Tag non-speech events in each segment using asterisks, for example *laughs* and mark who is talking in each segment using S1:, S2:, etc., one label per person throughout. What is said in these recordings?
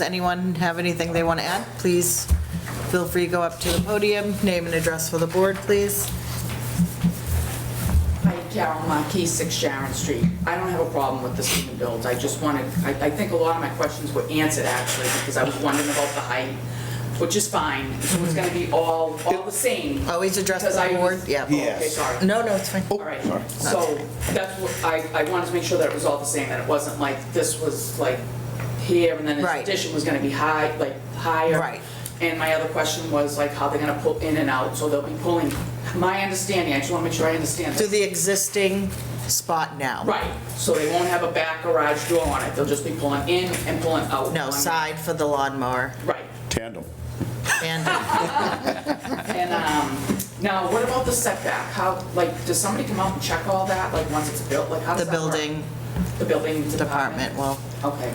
S1: Does anyone have anything they want to add? Please feel free to go up to the podium, name and address for the board, please.
S2: Hi, Carol Marquis, 6 uh, Sharon Street. I don't have a problem with this being built, I just wanted, I I think a lot of my questions were answered actually, because I was wondering about the height, which is fine, so it's gonna be all, all the same.
S1: Always address
S2: Because
S1: the
S2: I
S1: board,
S2: was-
S1: yeah.
S2: Oh, Okay, sorry.
S1: No, no, it's fine.
S2: All right, so that's what, I, I wanted to make sure that it was all the same, that it wasn't like this was like here and then
S1: Right.
S2: this addition was gonna be high, like higher.
S1: Right.
S2: And my other question was like how they're gonna pull in and out, so they'll be pulling, my understanding, I just wanna make sure I understand
S1: To
S2: this.
S1: the existing spot now.
S2: Right, so they won't have a back garage door on it, they'll just be pulling in and pulling out.
S1: No,
S2: pulling-
S1: side for the lawnmower
S2: Right,
S3: Tandem.
S2: *laughs*
S1: and
S2: and, um, now what about the setback? How, like, does somebody come out and check all that, like, once it's built, like, how
S1: the
S2: does that work?
S1: building
S2: The building
S1: department will.
S2: Okay,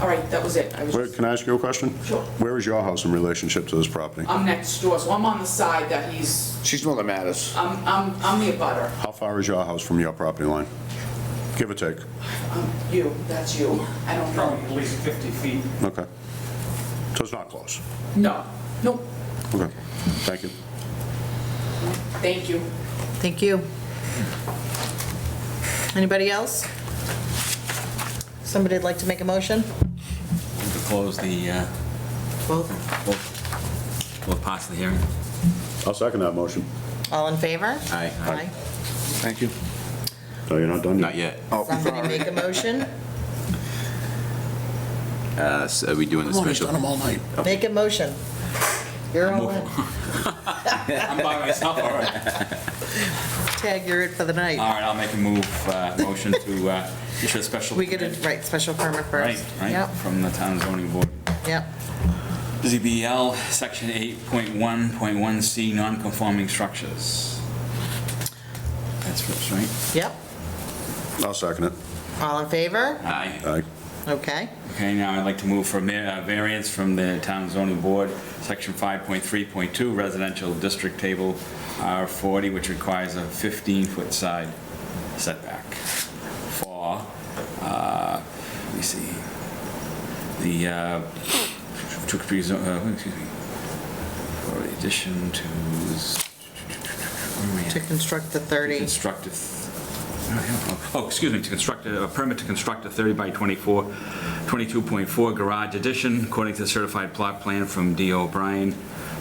S2: all right, that was it. I was
S3: Where-
S2: just,
S3: Can I ask you a question?
S2: Sure.
S3: Where is your house in relationship to this property?
S2: I'm next door, so I'm on the side that he's,
S4: She's the one that matters.
S2: I'm, I'm, I'm the abutter.
S3: How far is your house from your property line? Give or take.
S2: I'm you, that's you. I don't know
S5: probably at least 50 feet.
S3: Okay. So it's not close.
S2: you. No, no,
S3: Okay. Thank you.
S2: thank you.
S1: Thank you. Anybody else? Somebody'd like to make a motion?
S6: to close the, uh,
S1: Both.
S6: both, both parts of the hearing.
S3: I'll second that motion.
S1: All in favor?
S6: Aye.
S1: Aye.
S4: Thank you.
S3: No, you're not done yet.
S7: Not yet.
S4: Oh,
S1: Somebody make a motion?
S7: Uh, so Are we doing the
S4: Come on, he's
S7: special?
S4: done them all night.
S1: Make a motion. You're all in.
S6: I'm by myself, *laughs* all right.
S1: Tag, you're it for the
S6: All
S1: night.
S6: right, I'll make a move, uh, motion to uh, issue a special.
S1: We get a,
S6: permit.
S1: right, special permit
S6: Right,
S1: first.
S6: right,
S1: Yep,
S6: from the town zoning board.
S1: yep.
S6: ZBL, section 8.1.1C, non-conforming structures. That's first, right?
S1: Yep,
S3: I'll second it.
S1: all in favor?
S6: Aye.
S3: Aye.
S1: Okay,
S6: Okay, now I'd like to move for ma- uh, variance from the Town Zoning Board, Section 5.3.2, Residential District Table R40, which requires a 15-foot side setback for, uh, let me see, the, uh, to be zo- uh, excuse me, for addition to, where are we at?
S1: to construct the
S6: To
S1: 30.
S6: construct a th- oh, excuse me, to construct a a permit to construct a 30 by 24, 22.4 garage addition according to certified plot plan from D. O'Brien.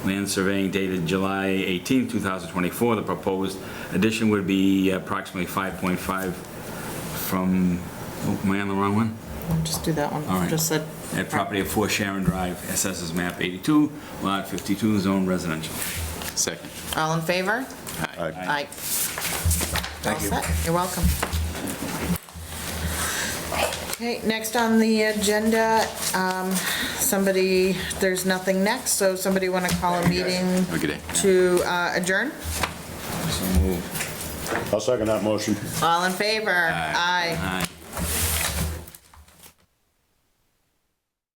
S6: Land surveying dated July 18, 2024. The proposed addition would be approximately 5.5 from, oh, am I on the wrong one?
S1: Just do that
S6: All
S1: one,
S6: right.
S1: just said.
S6: At property of 4 Sharon Drive, assesses map 82, lot 52, zone residential.
S7: Second.
S1: All in favor?
S3: Aye.
S1: Aye. Thank you. You're welcome. Okay, next on the agenda, um, somebody, there's nothing next, so somebody want to call a meeting
S7: Have a good day.
S1: to uh, adjourn?
S6: So move.
S3: I'll second that motion.
S1: All in favor? Aye.
S6: Aye.